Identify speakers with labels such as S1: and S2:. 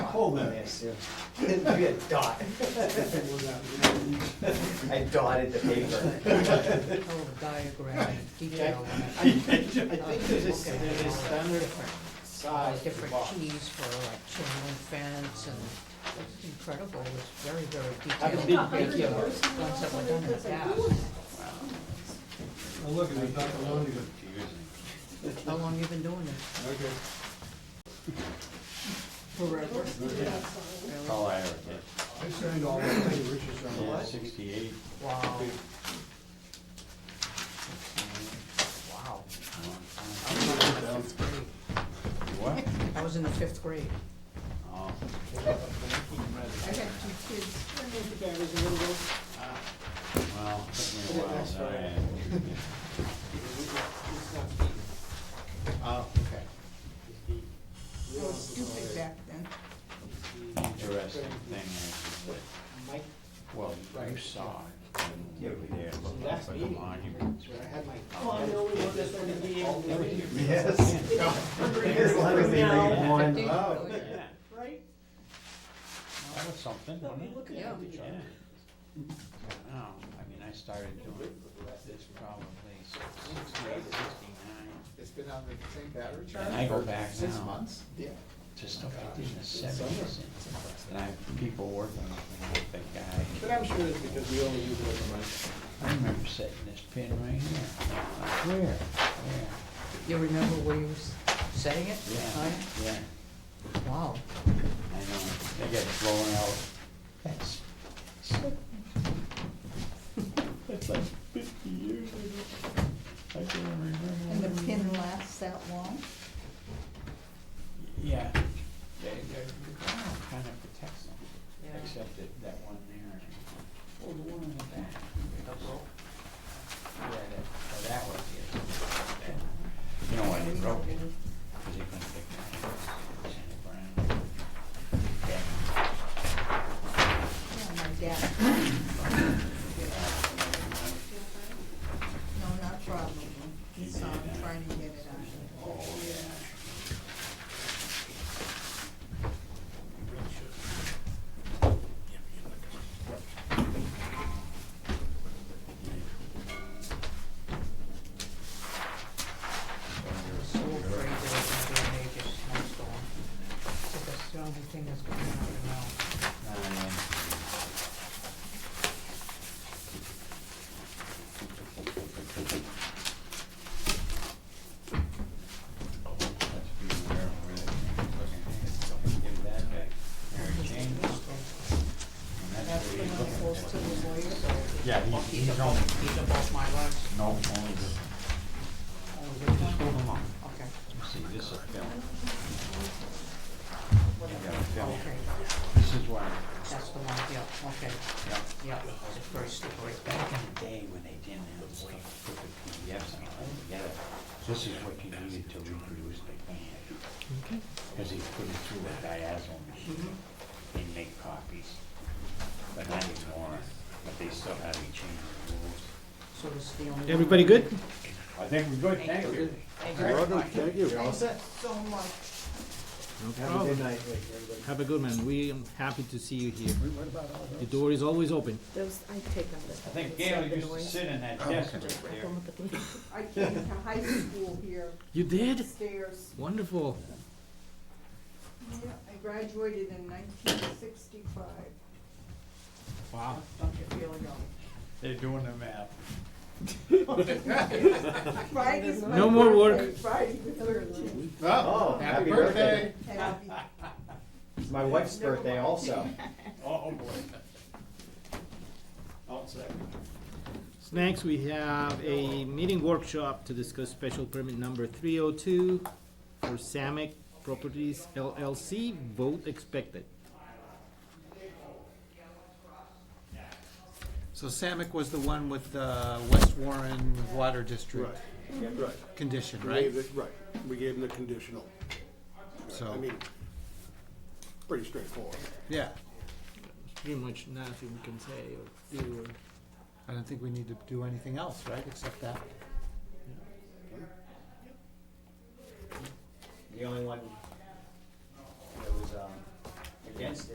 S1: hole in there, Sue. It'd be a dot. I dotted the paper.
S2: Oh, diagram, detail.
S3: I think there's a,
S2: Okay.
S3: there's a standard
S2: Uh,
S3: size for
S2: Different
S3: box.
S2: keys for like chain link fence and it's incredible, it's very, very
S3: Haven't
S2: detailed.
S3: been big yet.
S2: Ones that were done in the past.
S4: Well, look, it's not the loan you-
S2: How long you been doing it?
S4: Okay.
S2: Forever.
S1: All Oh, I
S4: I signed all my things, Richard's on the
S1: Yeah,
S4: list.
S1: sixty-eight.
S2: Wow, wow. I was in the fifth grade.
S1: What?
S2: I was in the fifth grade.
S1: Oh,
S3: I had two kids, I know the guy was a little,
S1: well, took me a while, so I-
S3: it's not deep.
S1: Oh, okay.
S3: It's deep.
S5: It was stupid back then.
S1: Interesting thing is that
S3: Mike,
S1: Well, you
S3: Right.
S1: saw it. and You were there,
S3: so
S1: looked up
S3: last
S1: at the
S3: meeting,
S1: monument.
S3: where I had my.
S5: Well, I know we were just
S3: All
S5: gonna be able to
S3: the way
S5: read.
S3: here.
S1: Yes.
S5: As long as they read
S2: one
S1: Oh,
S2: out.
S1: yeah.
S5: Right?
S1: That was something,
S5: But
S1: wasn't
S5: we
S1: it?
S5: look
S2: Yeah.
S5: at each
S1: Yeah.
S5: other.
S1: I know. I mean, I started doing this probably sixty-eight, sixty-nine,
S6: It's been on the same battery charge?
S1: And I go
S6: for
S1: back
S6: Six
S1: now.
S6: months? Yeah.
S1: to stuff I did in the seventies. And I have people working with me, the
S6: But
S1: guy.
S6: I'm sure it's because we only use it as a month.
S1: I remember setting this pin right here. Like, Where? Where?
S2: You remember where you was setting it?
S1: Yeah,
S2: Right?
S1: yeah.
S2: Wow.
S1: I know. They get blown out. That's, that's like fifty years ago. I can't remember.
S5: And the pin lasts that long?
S1: Yeah, they, they're, kind of protects them,
S2: Yeah.
S1: except that, that one there. Well, the one in the back. Yeah, that, oh, that was it. That- You know why they broke it? Cause they couldn't pick it up. It's in the ground. Yeah.
S5: Yeah, my dad. No, not probably. He saw him trying to get it out.
S1: Oh, yeah.
S2: So afraid there was gonna be a major snowstorm. So that's the only thing that's gonna happen now.
S1: Um, Let's be aware of where that thing is looking. Don't give that back. Mary Jane, and that's
S2: That's
S1: where
S2: when
S1: he's
S2: I'm
S1: looking
S2: supposed
S1: at.
S2: to the lawyer, so.
S1: Yeah, he's-
S2: He's
S1: he's only-
S2: above, he's above my rights.
S1: No, only this.
S2: Only this
S1: Just
S2: one?
S1: hold them up.
S2: Okay,
S1: See, this is a film. You got a film.
S2: okay,
S1: This is why,
S2: that's the one, yeah, okay,
S1: yeah.
S2: yeah, it's very slippery.
S1: Back in the day when they didn't have the way to put the PDFs and all that together, this is what you needed to reproduce the plan. Because they put it through a diagonal machine and make copies. But not anymore, but they still have you change the rules.
S2: So this is the only one.
S3: Everybody good?
S1: I think we're good, thank you.
S2: Thank you.
S1: Welcome,
S6: thank you. all set?
S5: So much.
S6: Have a good night, everybody.
S3: Have a good man, we am happy to see you here. The door is always open.
S7: Those, I take them.
S1: I think Gail used to sit in that desk right there.
S5: I came to high school here,
S3: You did?
S5: stairs.
S3: Wonderful.
S5: Yeah, I graduated in nineteen sixty-five.
S1: Wow,
S5: Don't you feel young?
S1: they're doing the math.
S5: Friday's my birthday.
S3: No more work.
S5: Friday the thirteenth.
S6: Oh, happy birthday.
S5: And I'll be
S8: It's my wife's birthday also.
S1: Oh, boy. I'll second.
S3: Next, we have a meeting workshop to discuss special permit number three oh two for Samick Properties LLC, vote expected.
S8: So Samick was the one with the West Warren Water District
S9: Right,
S8: condition,
S9: we
S8: right?
S9: gave it, right, we gave them the conditional, I
S8: So,
S9: mean, pretty straightforward.
S8: yeah,
S3: Pretty much nothing we can say or do or.
S8: I don't think we need to do anything else, right, except that? Yeah. Okay. Yeah. Yeah. Yeah. The only one that was, um, Yes.